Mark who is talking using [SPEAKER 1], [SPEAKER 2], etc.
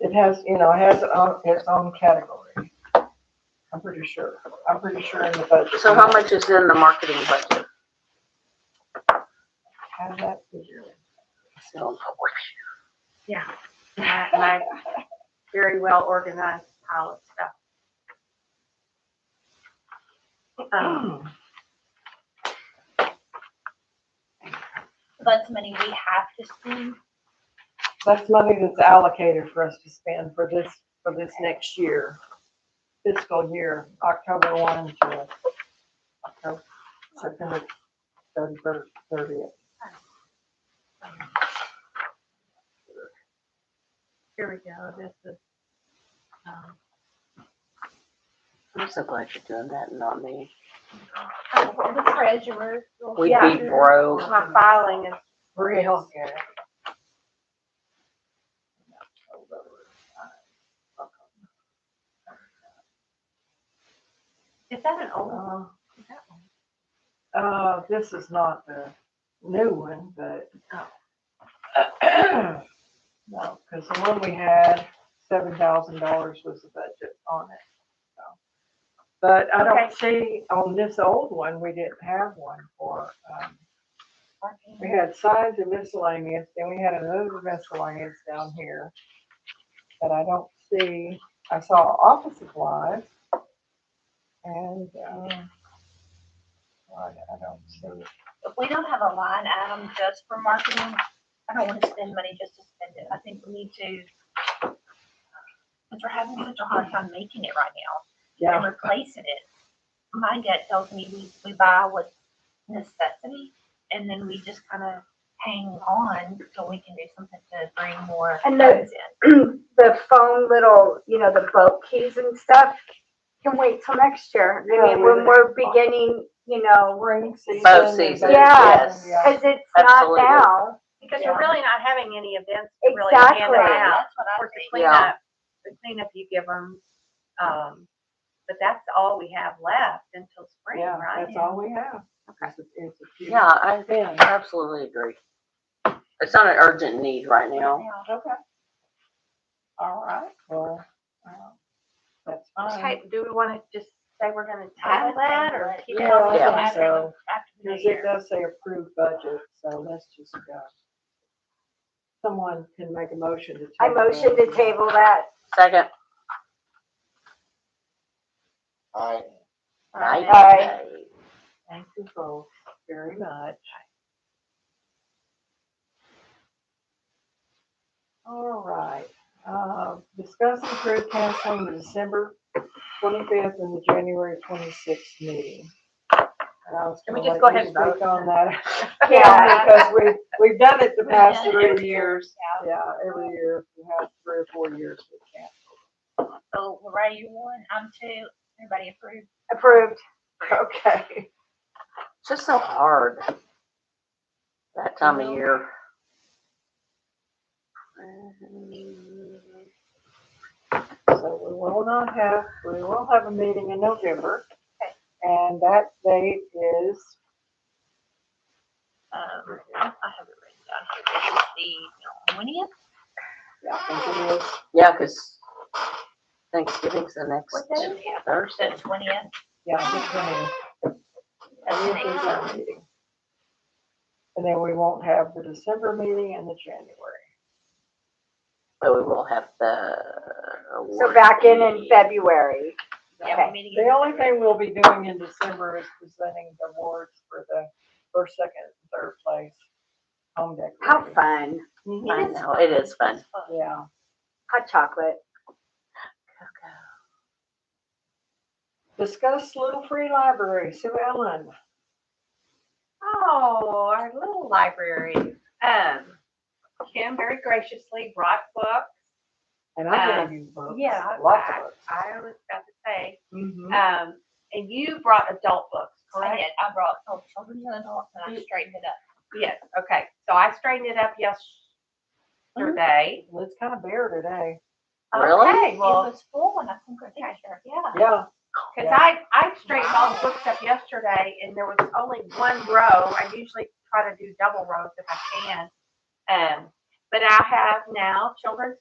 [SPEAKER 1] It has, you know, it has its own, its own category. I'm pretty sure, I'm pretty sure in the budget.
[SPEAKER 2] So how much is in the marketing budget?
[SPEAKER 1] How did that figure?
[SPEAKER 2] So,
[SPEAKER 3] and I, and I very well organized pile of stuff. Um,
[SPEAKER 4] That's money we
[SPEAKER 3] Mm.
[SPEAKER 4] have to spend.
[SPEAKER 1] That's money that's allocated for us to spend for this, for this next year, fiscal year, October one to October, September thirty, thirtieth.
[SPEAKER 3] here we go, this is, um,
[SPEAKER 2] I'm so glad you're doing that and not me.
[SPEAKER 4] oh, The treasurer. will-
[SPEAKER 2] We'd
[SPEAKER 3] Yeah.
[SPEAKER 2] be broke.
[SPEAKER 3] my filing is,
[SPEAKER 1] Real good.
[SPEAKER 3] is that an old one?
[SPEAKER 1] Uh,
[SPEAKER 3] Is that one?
[SPEAKER 1] Uh, this is not the new one, but. No, because the one we had, seven thousand dollars was the budget on it, so. But I don't see, on this old one, we didn't have one for, um, we had signs and miscellaneous, then we had another miscellaneous down here. But I don't see, I saw office supplies. And, um, I I don't see.
[SPEAKER 4] If we don't have a line item just for marketing, I don't want to spend money just to spend it. I think we need to. Because we're having such a hard time making it right now and
[SPEAKER 1] Yeah,
[SPEAKER 4] replacing it. My gut tells me we, we buy what's necessity and then we just kind of hang on till we can do something to bring more
[SPEAKER 5] And the-
[SPEAKER 4] funds in.
[SPEAKER 5] the phone little, you know, the boat keys and stuff can wait till next year. I mean, when we're beginning, you know,
[SPEAKER 1] spring season.
[SPEAKER 2] Both seasons,
[SPEAKER 5] yes.
[SPEAKER 1] Yeah.
[SPEAKER 5] because it's not
[SPEAKER 2] Absolutely.
[SPEAKER 5] now.
[SPEAKER 3] Because we're really not having any events to really hand them
[SPEAKER 5] Exactly.
[SPEAKER 3] out.
[SPEAKER 4] That's what
[SPEAKER 3] Of
[SPEAKER 4] I
[SPEAKER 3] course, the
[SPEAKER 4] think.
[SPEAKER 2] Yeah.
[SPEAKER 3] cleanup, the cleanup you give them, um, but that's all we have left until spring,
[SPEAKER 1] Yeah,
[SPEAKER 3] right?
[SPEAKER 1] that's all we have. It's a- it's a few-
[SPEAKER 2] Yeah, I I absolutely agree. It's not an urgent need right now.
[SPEAKER 4] Yeah.
[SPEAKER 1] Okay. All right, well, um, that's fine.
[SPEAKER 3] Okay, do we wanna just say we're gonna
[SPEAKER 4] I
[SPEAKER 3] table
[SPEAKER 4] would
[SPEAKER 3] that
[SPEAKER 4] think
[SPEAKER 3] or
[SPEAKER 4] that-
[SPEAKER 3] keep it
[SPEAKER 1] Yeah,
[SPEAKER 3] on?
[SPEAKER 1] I
[SPEAKER 2] Yeah.
[SPEAKER 1] think so,
[SPEAKER 4] After the new
[SPEAKER 1] because it
[SPEAKER 4] year.
[SPEAKER 1] does say approved budget, so let's just go. Someone can make a motion to.
[SPEAKER 5] I
[SPEAKER 1] table
[SPEAKER 5] motion to
[SPEAKER 1] those.
[SPEAKER 5] table that.
[SPEAKER 2] Second.
[SPEAKER 6] I
[SPEAKER 2] Aye.
[SPEAKER 5] Aye.
[SPEAKER 1] Thank you both very much. All right, uh, discuss and approve canceling the December twenty-fifth and the January twenty-sixth meeting. And I was
[SPEAKER 3] Can we
[SPEAKER 1] gonna
[SPEAKER 3] just
[SPEAKER 1] let
[SPEAKER 3] go
[SPEAKER 1] you
[SPEAKER 3] ahead and
[SPEAKER 1] speak On that.
[SPEAKER 5] Yeah.
[SPEAKER 1] Because we, we've done it the past
[SPEAKER 4] Yeah.
[SPEAKER 1] three years.
[SPEAKER 4] Yeah.
[SPEAKER 1] Yeah, every year, we have three or four years we can't.
[SPEAKER 4] So Lorraine, you one, I'm two, everybody approved.
[SPEAKER 5] Approved.
[SPEAKER 1] Okay.
[SPEAKER 2] It's just so hard. That time of year.
[SPEAKER 1] So we will not have, we will have a meeting in November. And that date is
[SPEAKER 4] Um, I have it written down here. This is the twentieth.
[SPEAKER 1] Yeah, I think it is.
[SPEAKER 2] Yeah, because Thanksgiving's the next
[SPEAKER 4] What day?
[SPEAKER 2] Thursday.
[SPEAKER 4] The twentieth.
[SPEAKER 1] Yeah, the
[SPEAKER 4] That's
[SPEAKER 1] twentieth.
[SPEAKER 4] next.
[SPEAKER 1] And then we won't have the December meeting and the January.
[SPEAKER 2] So we will have the.
[SPEAKER 5] So back in in February.
[SPEAKER 4] Yeah, we're meeting in
[SPEAKER 1] The only
[SPEAKER 4] February.
[SPEAKER 1] thing we'll be doing in December is presenting the awards for the first, second, and third place home decorating.
[SPEAKER 5] How fun.
[SPEAKER 1] Mhm.
[SPEAKER 2] I know, it is fun.
[SPEAKER 1] Yeah,
[SPEAKER 5] Hot chocolate.
[SPEAKER 1] discuss Little Free Library, Sue Ellen.
[SPEAKER 3] Oh, our little library. Um, Kim very graciously brought books.
[SPEAKER 1] And I gave you books,
[SPEAKER 3] Yeah.
[SPEAKER 1] lots
[SPEAKER 3] I-
[SPEAKER 1] of books.
[SPEAKER 3] I was about to say,
[SPEAKER 1] Mhm.
[SPEAKER 3] um, and you brought adult books,
[SPEAKER 4] I
[SPEAKER 3] correct?
[SPEAKER 4] did, I brought oh, children and adults and I straightened it up.
[SPEAKER 3] Yes, okay. So I straightened it up yesterday.
[SPEAKER 1] Well, It's kind of bare today.
[SPEAKER 2] Really?
[SPEAKER 3] Okay,
[SPEAKER 4] It
[SPEAKER 3] well,
[SPEAKER 4] was full and I took a picture. Yeah.
[SPEAKER 1] Yeah,
[SPEAKER 3] Cause I, I straightened all the books up yesterday and there was only one row. I usually try to do double rows if I can. Um, but I have now children's